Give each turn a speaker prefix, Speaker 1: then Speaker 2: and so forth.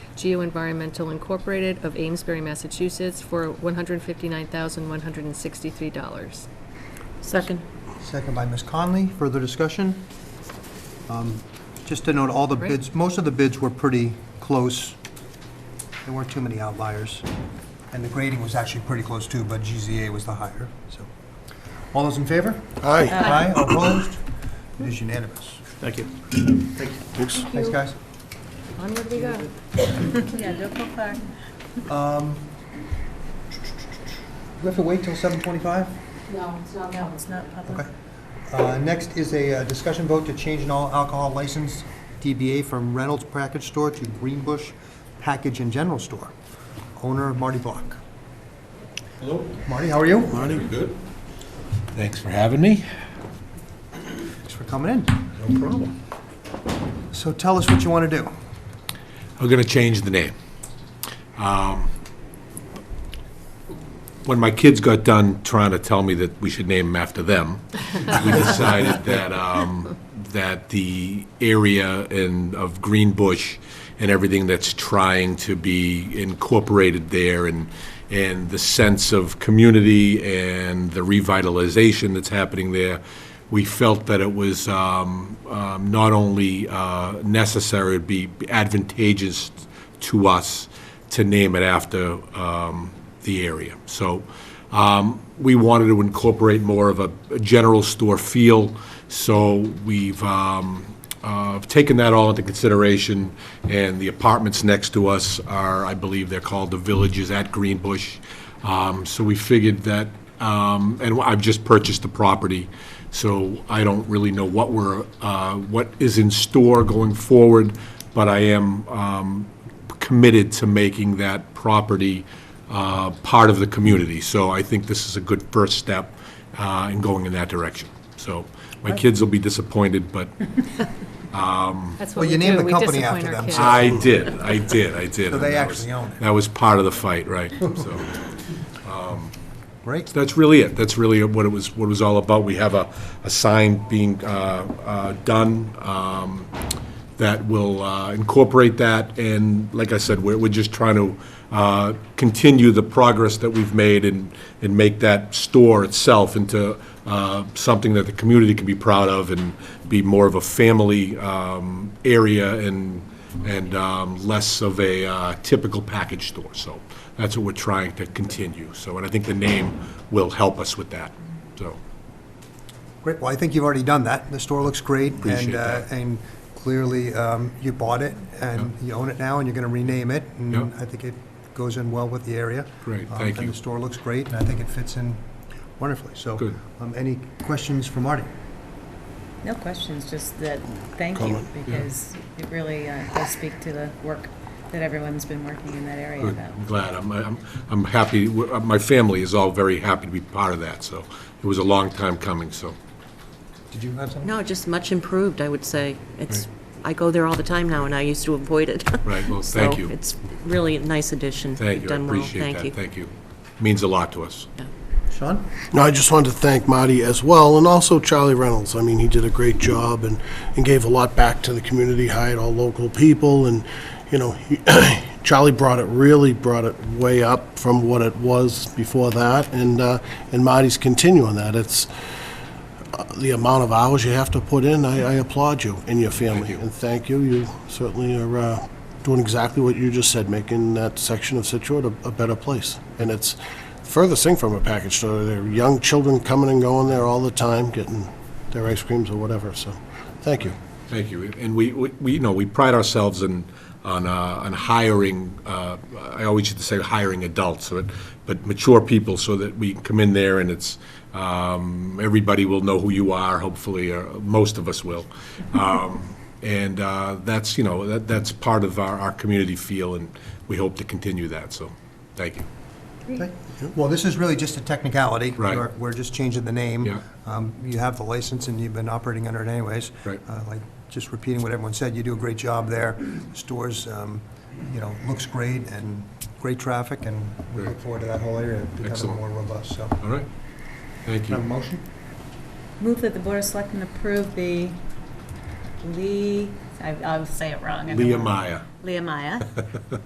Speaker 1: Geo Environmental Incorporated of Amesbury, Massachusetts, for $159,163.
Speaker 2: Second.
Speaker 3: Second by Ms. Conley. Further discussion? Um, Just to note, all the
Speaker 1: Great.
Speaker 3: bids, most of the bids were pretty close. There weren't too many outliers. And the grading was actually pretty close too, but GZA was the higher, so. All those in favor?
Speaker 4: Aye.
Speaker 3: Aye. All Opposed? It is unanimous.
Speaker 5: Thank you.
Speaker 4: Thanks.
Speaker 3: Thanks, guys.
Speaker 1: Onward we go.
Speaker 2: Yeah, don't go far.
Speaker 3: Do we have to wait till 7:45?
Speaker 2: No, it's not, no, it's not public.
Speaker 3: Okay. Uh, Next is a uh, discussion vote to change an all alcohol license DBA from Reynolds Package Store to Greenbush Package and General Store. Owner Marty Block.
Speaker 6: Hello.
Speaker 3: Marty, how are you?
Speaker 6: Pretty good. Thanks for having me.
Speaker 3: Thanks for coming in.
Speaker 6: No problem.
Speaker 3: So tell us what you want to do.
Speaker 6: We're going to change the name. Um, When my kids got done trying to tell me that we should name them after them, we decided that, um, that the area and of Green Bush and everything that's trying to be incorporated there and, and the sense of community and the revitalization that's happening there, we felt that it was um, um, not only uh, necessary, it'd be advantageous to us to name it after um, the area. So um, we wanted to incorporate more of a a general store feel, so we've um, uh, taken that all into consideration, and the apartments next to us are, I believe they're called the Villages at Green Bush. Um, So we figured that, um, and I've just purchased the property, so I don't really know what we're, uh, what is in store going forward, but I am um, committed to making that property uh, part of the community. So I think this is a good first step uh, in going in that direction. So my kids will be disappointed, but
Speaker 1: That's
Speaker 3: Well,
Speaker 1: what
Speaker 3: you
Speaker 1: we
Speaker 3: named
Speaker 1: do.
Speaker 3: the
Speaker 1: We
Speaker 3: company
Speaker 1: disappoint
Speaker 3: after
Speaker 1: our
Speaker 3: them,
Speaker 1: kids.
Speaker 3: so-
Speaker 6: I did, I did, I did.
Speaker 3: So they
Speaker 6: And that was-
Speaker 3: actually own it.
Speaker 6: That was part of the fight, right? So
Speaker 3: Great.
Speaker 6: that's really it. That's really what it was, what it was all about. We have a, a sign being uh, uh, done um, that will uh, incorporate that, and like I said, we're, we're just trying to uh, continue the progress that we've made and, and make that store itself into uh, something that the community can be proud of and be more of a family um, area and, and um, less of a uh, typical package store. So that's what we're trying to continue. So, and I think the name will help us with that, so.
Speaker 3: Great. Well, I think you've already done that. The store looks great.
Speaker 6: Appreciate
Speaker 3: and, uh,
Speaker 6: that.
Speaker 3: And clearly, um, you bought it, and you own it now, and you're going to rename it.
Speaker 6: Yeah.
Speaker 3: And I think it goes in well with the area.
Speaker 6: Great,
Speaker 3: Um,
Speaker 6: thank
Speaker 3: And
Speaker 6: you.
Speaker 3: the store looks great, and I think it fits in wonderfully. So,
Speaker 6: Good.
Speaker 3: um, any questions for Marty?
Speaker 2: No questions, just that, thank you, because it really uh, does speak to the work that everyone's been working in that area
Speaker 6: Good,
Speaker 2: about.
Speaker 6: I'm glad. I'm, I'm, I'm happy, We're- uh, my family is all very happy to be part of that, so it was a long time coming, so.
Speaker 3: Did you have something?
Speaker 7: No, just much improved, I would say. It's, I go there all the time now, and I used to avoid it.
Speaker 6: Right, well, thank you.
Speaker 7: So it's really a nice addition.
Speaker 6: Thank you,
Speaker 7: You've
Speaker 6: I
Speaker 7: done well.
Speaker 6: appreciate
Speaker 7: Thank you.
Speaker 6: that, thank you. Means a lot to us.
Speaker 3: Sean?
Speaker 4: No, I just wanted to thank Marty as well, and also Charlie Reynolds. I mean, he did a great job and, and gave a lot back to the community, hired all local people, and, you know, he- Charlie brought it, really brought it way up from what it was before that, and, uh, and Marty's continuing that. It's uh, the amount of hours you have to put in, I, I applaud you and your family. And thank you, you certainly are uh, doing exactly what you just said, making that section of Situate a, a better place. And it's furthest thing from a package store, there are young children coming and going there all the time, getting their ice creams or whatever, so, thank you.
Speaker 6: Thank you. And we, we, we, you know, we pride ourselves in, on, uh, on hiring, uh, I always used to say hiring adults, but, but mature people so that we come in there and it's, um, everybody will know who you are, hopefully, or most of us will. Um, and, uh, that's, you know, that, that's part of our, our community feel and we hope to continue that, so, thank you.
Speaker 3: Okay. Well, this is really just a technicality.
Speaker 6: Right.
Speaker 3: We're- We're just changing the name.
Speaker 6: Yeah.
Speaker 3: Um, You have the license and you've been operating under it anyways.
Speaker 6: Right.
Speaker 3: Uh, Like, just repeating what everyone said, you do a great job there. Stores, um, you know, looks great and great traffic, and we look forward to that whole area becoming
Speaker 6: Excellent.
Speaker 3: more robust, so.
Speaker 6: All right? Thank
Speaker 3: Can I have a
Speaker 6: you.
Speaker 3: motion?
Speaker 2: Move that the Board of Selectmen approve the Lee, I- I'll say it wrong. I don't
Speaker 6: Leah
Speaker 2: know.
Speaker 6: Maya.
Speaker 2: Leah Maya